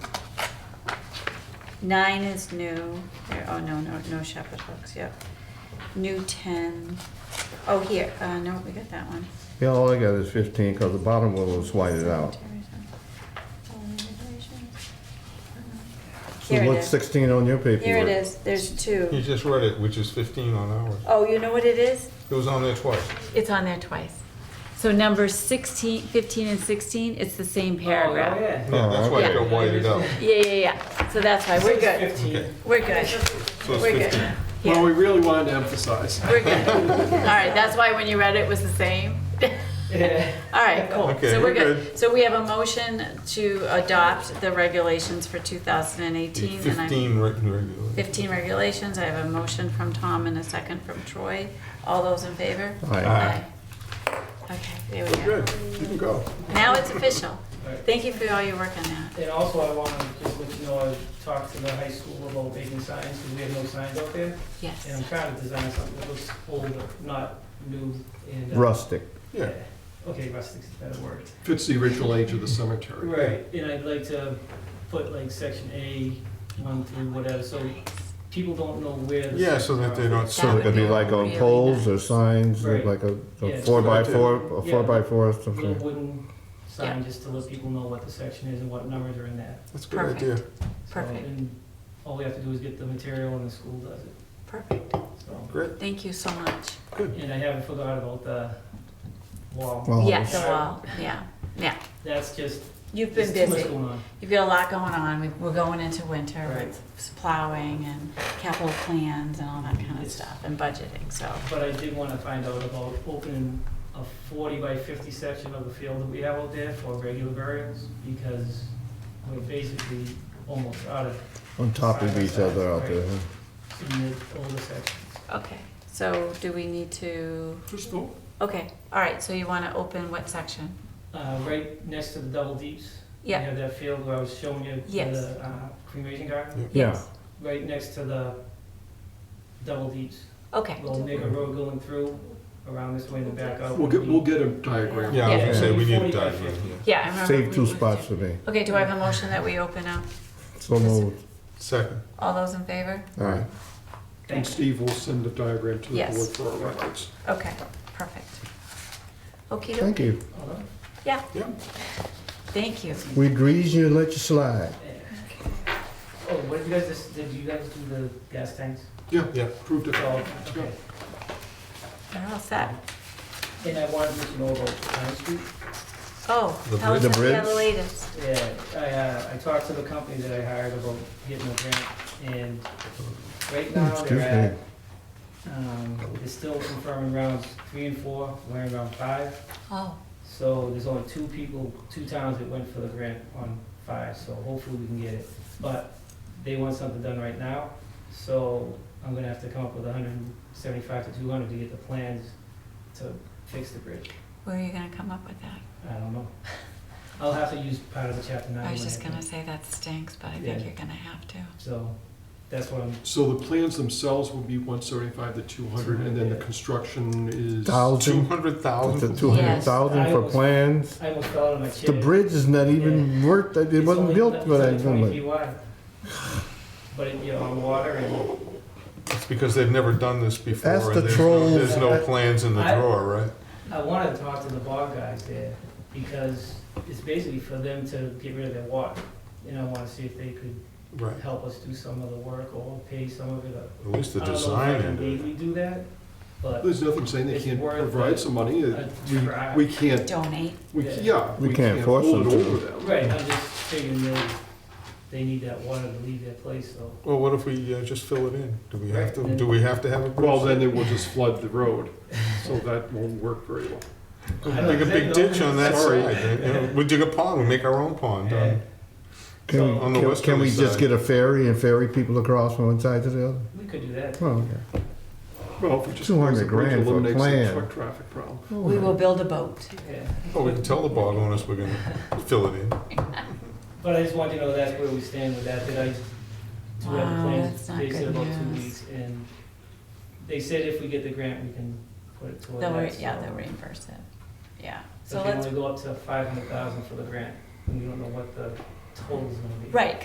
Nine is new, There- oh, no, no, no shepherd hooks, yep. New ten. Oh here, uh, no, we got that one. Yeah, all I got is fifteen, because the bottom one was whited out. So Uh-huh. Here it what's is, sixteen on your paperwork? here it is, there's You two. just read it, which is 15 on ours. Oh, you know what it is? It was on there twice. It's on there twice. So numbers 16, 15, and 16, it's the same Oh, paragraph. Oh, Yeah, that's why it okay. got whited out. Yeah, yeah, yeah. So that's why we're good. Okay. We're good, So We're it's good. 15. Yeah. Well, we really wanted to emphasize. We're good. All right, that's why when you read it, it was the same. All right, cool. Okay, So we're we're good. So we have a motion to adopt the regulations for 2018. and I'm- 15 written regularly. 15 regulations, I have a motion from Tom and a second from Troy. All those in favor? Aye. Aye. Okay, there we go. Good, you can go. Now it's official. Thank you for all your work on that. And also, I want to just let you know, I talked to the high school about making signs, because we have no signs out there, and Yes. I'm trying to design something that looks older, not new and. uh, Rustic. Yeah, Okay, rustic's a better word. Fits the original age of the cemetery. Right, and I'd like to put like section A, one through whatever, so people don't know where. the yeah, so that they signs are. don't. So it could be like on Really poles or nice. signs, E Right. like a Yeah. a four by four, a Yeah. four by four or Little something. wooden sign, just to let people know what the section is and what numbers are in that. That's a good idea. So, Perfect. And all we have to do is get the material and the school does it, Perfect. so. Great, Thank you so much. And I haven't forgot about the wall. Well, Yeah, the wall, yeah, yeah. That's just, You've there's been too much busy. going on. You've got a lot going on. We- We're going into winter Right. with plowing and capital plans and all that kind of Yes. stuff and budgeting, so. But I did wanna find out about opening a forty by fifty section of the field that we have out there for regular burials, because we're basically almost out of on top of each other out there. huh? some of the older sections. Okay, so do we need to, Just don't- okay, all right, so you want to open what section? Uh, right next to the double deeps. Yeah. You have that field where I was showing you Yes. the uh, cremation garden, Yeah. Yes. right next to the double deeps. Okay, We'll make a road going through around this way and back out. We'll get, we'll get a diagram. yeah, I was Yeah. gonna say, we need a 40 by diagram, 50. yeah. yeah, I remember. Save we two moved spots it. for me. Okay, do I have a motion that we open up? So moved. Second, All those in favor? All right. And Steve will send the diagram to the Yes. board for our records. Okay, perfect. Okey doke, Thank you. Hold on. yeah. thank you. We grease you and let you slide. Oh, what did you guys, just- did you guys do the gas tanks? Yeah, Yeah. Proved it. Oh, okay. We're all set. And I wanted to let you know about Pine Street. Oh, The tell us bridge- the the bridge? other latest. Yeah, I, uh, I talked to the company that I hired about getting a grant, and right now Excuse they're me. at, um, they're still confirming rounds three and four, we're in round five. Oh, So there's only two people, two towns that went for the grant on five, so hopefully we can get it. But they want something done right now, so I'm gonna have to come up with hundred and seventy-five to two hundred to get the plans to fix the bridge. where are you gonna come up with that? I don't know. I'll have to use part of the chapter nine. I was money, just gonna say that stinks, but I think Yeah. you're gonna have to. So that's what I'm, So the plans themselves will be one seventy-five to two hundred, and then the construction is. Thousand, the two 200,000? hundred thousand for Yes. plans. I almost fell out of my chair. The bridge is not even worth, it It's wasn't only- built it's for only that 20 number. feet wide. But it, you know, on water and, It's because they've never done this before. That's and the there's no- trolls. There's no plans in the I- drawer, right? I wanted to talk to the bog guys there, because it's basically for them to get rid of their water. And I wanna see if they could Right, help us do some of the work or pay some of it. up. at least the I don't know if design I can end of it. legally do that, but There's nothing saying they It's can't worth provide it. some money. a try. We can't, Donate. we, Yeah. yeah. We can't force hold them it to. over them. Right, I'm just figuring they, they need that water to leave their place, so. Well, what if we uh, just fill it in? Do we have Right. to, do we have to have a bridge? Well, then it will just flood the road, so that won't work very well. Make a big ditch on that Sorry. side. you know, We dig a pond, we make our own pond. uh, Can So- on we, the can- westerly can we just side. get a ferry and ferry people across from one side to the other? We could do that. Oh, okay. Well, if we just. 200 close the bridge, grand for a eliminates the plan. Truck traffic problem. We will build a boat. Yeah. Well, we can tell the bog owners we're gonna fill it in. But I just wanted to know that's where we stand with that, that I do Wow, have a plan, that's not they said good about two news. weeks, and they said if we get the grant, we can put it toward They'll, that, re- so. yeah, they'll reimburse it. Yeah, so But they let's, only go up to five hundred thousand for the grant, and we don't know what the total's gonna be. right,